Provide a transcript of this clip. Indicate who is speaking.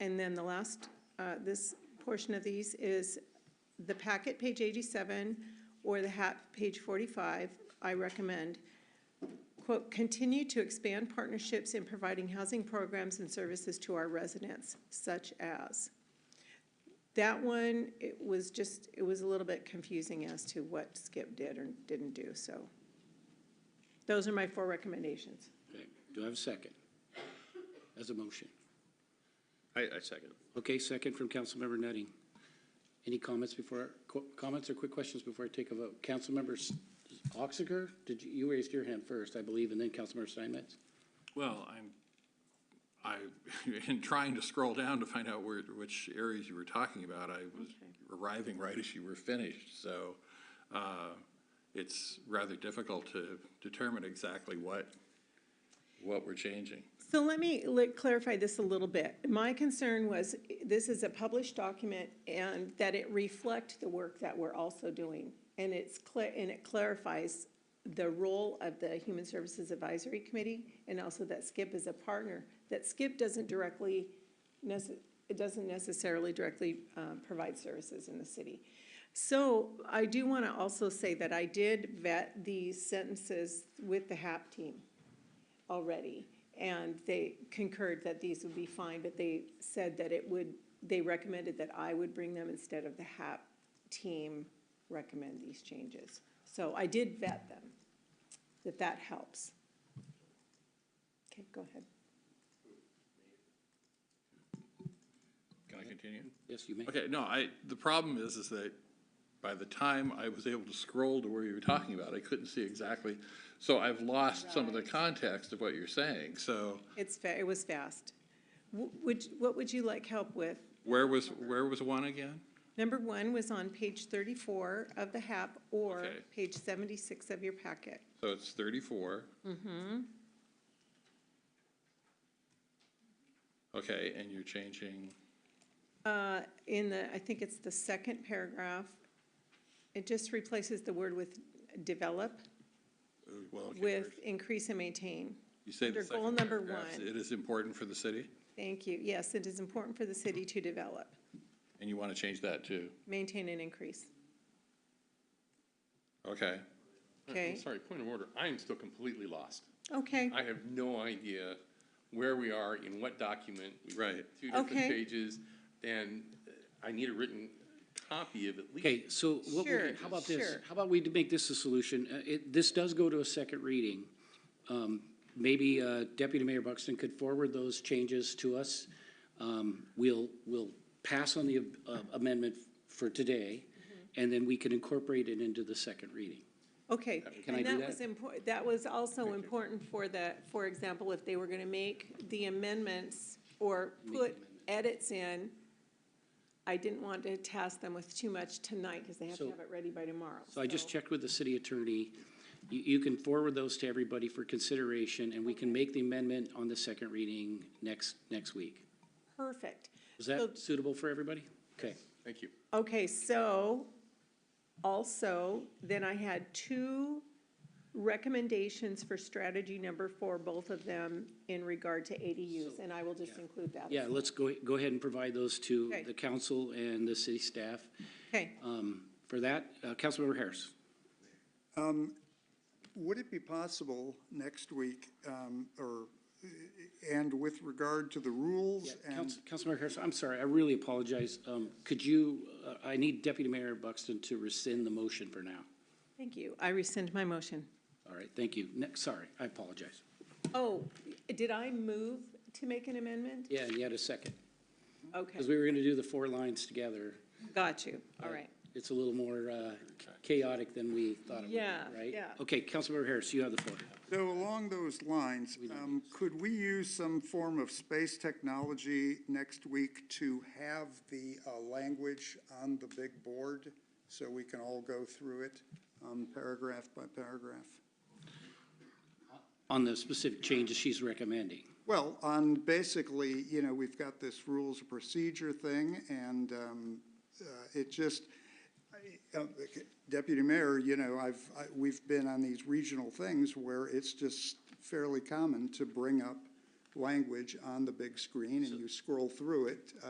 Speaker 1: And then the last, uh, this portion of these is the packet, page eighty-seven, or the hat, page forty-five, I recommend. Quote, continue to expand partnerships in providing housing programs and services to our residents, such as. That one, it was just, it was a little bit confusing as to what Skip did or didn't do, so. Those are my four recommendations.
Speaker 2: Okay, do I have a second? As a motion.
Speaker 3: I, I second.
Speaker 2: Okay, second from Councilmember Nutting. Any comments before, qu- comments or quick questions before I take a vote? Councilmember S- Oxiger, did you, you raised your hand first, I believe, and then Councilmember Steinmetz?
Speaker 4: Well, I'm, I, in trying to scroll down to find out where, which areas you were talking about, I was arriving right as you were finished, so, uh, it's rather difficult to determine exactly what, what we're changing.
Speaker 1: So let me like, clarify this a little bit. My concern was, this is a published document, and that it reflect the work that we're also doing. And it's clear, and it clarifies the role of the Human Services Advisory Committee, and also that Skip is a partner. That Skip doesn't directly, nece- it doesn't necessarily directly uh, provide services in the city. So I do want to also say that I did vet these sentences with the HAP team already, and they concurred that these would be fine, but they said that it would, they recommended that I would bring them instead of the HAP team recommend these changes. So I did vet them, if that helps. Okay, go ahead.
Speaker 4: Can I continue?
Speaker 2: Yes, you may.
Speaker 4: Okay, no, I, the problem is, is that by the time I was able to scroll to where you were talking about, I couldn't see exactly. So I've lost some of the context of what you're saying, so
Speaker 1: It's, fa- it was fast. Wh- Would, what would you like help with?
Speaker 4: where was, where was one again?
Speaker 1: Number one was on page thirty-four of the HAP or
Speaker 4: Okay.
Speaker 1: page seventy-six of your packet.
Speaker 4: So it's 34. Mm-hmm. Okay, and you're changing,
Speaker 1: Uh, in the, I think it's the second paragraph, it just replaces the word with develop
Speaker 4: uh, well, okay,
Speaker 1: with
Speaker 4: first.
Speaker 1: increase and maintain.
Speaker 4: you say
Speaker 1: under
Speaker 4: the
Speaker 1: goal
Speaker 4: second
Speaker 1: number
Speaker 4: paragraph,
Speaker 1: one.
Speaker 4: it is important for the city,
Speaker 1: Thank you. Yes, it is important for the city to develop,
Speaker 4: and you want to change that too.
Speaker 1: maintain and increase.
Speaker 2: Uh,
Speaker 4: Okay,
Speaker 1: Okay.
Speaker 3: I'm sorry, point of order. I am still completely lost.
Speaker 1: Okay,
Speaker 3: I have no idea where we are, in what document. We've got
Speaker 4: Right.
Speaker 3: Two different
Speaker 1: Okay.
Speaker 3: pages, and I need a written copy of at least.
Speaker 2: Okay, so what, we-
Speaker 1: Sure,
Speaker 2: how about this?
Speaker 1: sure.
Speaker 2: How about we make this a solution? Uh, It, this does go to a second reading. Um, Maybe uh, Deputy Mayor Buxton could forward those changes to us. Um, We'll, we'll pass on the uh, amendment for today,
Speaker 1: Mm-hmm.
Speaker 2: and then we can incorporate it into the second reading.
Speaker 1: okay.
Speaker 2: Can I
Speaker 1: And
Speaker 2: do that?
Speaker 1: was important, that was also important for the, for example, if they were gonna make the amendments or put edits in, I didn't want to task them with too much tonight, because they have to
Speaker 2: So-
Speaker 1: have it ready by tomorrow.
Speaker 2: So I just checked with the city attorney. You, you can forward those to everybody for consideration, and we can make the amendment on the second reading next, next week.
Speaker 1: Perfect.
Speaker 2: Is
Speaker 1: So-
Speaker 2: that suitable for everybody? Okay.
Speaker 3: Thank you.
Speaker 1: Okay, so also, then I had two recommendations for strategy number four, both of them in regard to ADUs, and I will just include that.
Speaker 2: Yeah, let's go, go ahead and provide those to
Speaker 1: Okay.
Speaker 2: the council and the city staff.
Speaker 1: Okay,
Speaker 2: Um, For that, uh, Councilmember Harris.
Speaker 5: Would it be possible next week, um, or, and with regard to the rules and,
Speaker 2: Council- Councilmember Harris, I'm sorry, I really apologize. Um, Could you, uh, I need Deputy Mayor Buxton to rescind the motion for now.
Speaker 1: thank you. I rescind my motion.
Speaker 2: All right, thank you. Next, sorry, I apologize.
Speaker 1: Oh, did I move to make an amendment?
Speaker 2: Yeah, and you had a second,
Speaker 1: Okay,
Speaker 2: because we were going to do the four lines together.
Speaker 1: got you. All right.
Speaker 2: It's a little more uh, chaotic than we thought it would be,
Speaker 1: Yeah,
Speaker 2: right?
Speaker 1: yeah.
Speaker 2: Okay, Councilmember Harris, you have the floor.
Speaker 5: so along those lines, um, could we use some form of space technology next week to have the, uh, language on the big board? So we can all go through it, um, paragraph by paragraph?
Speaker 2: On the specific changes she's recommending.
Speaker 5: Well, on basically, you know, we've got this rules of procedure thing, and um, uh, it just, I- uh, Deputy Mayor, you know, I've, I- we've been on these regional things where it's just fairly common to bring up language on the big screen and you scroll through it,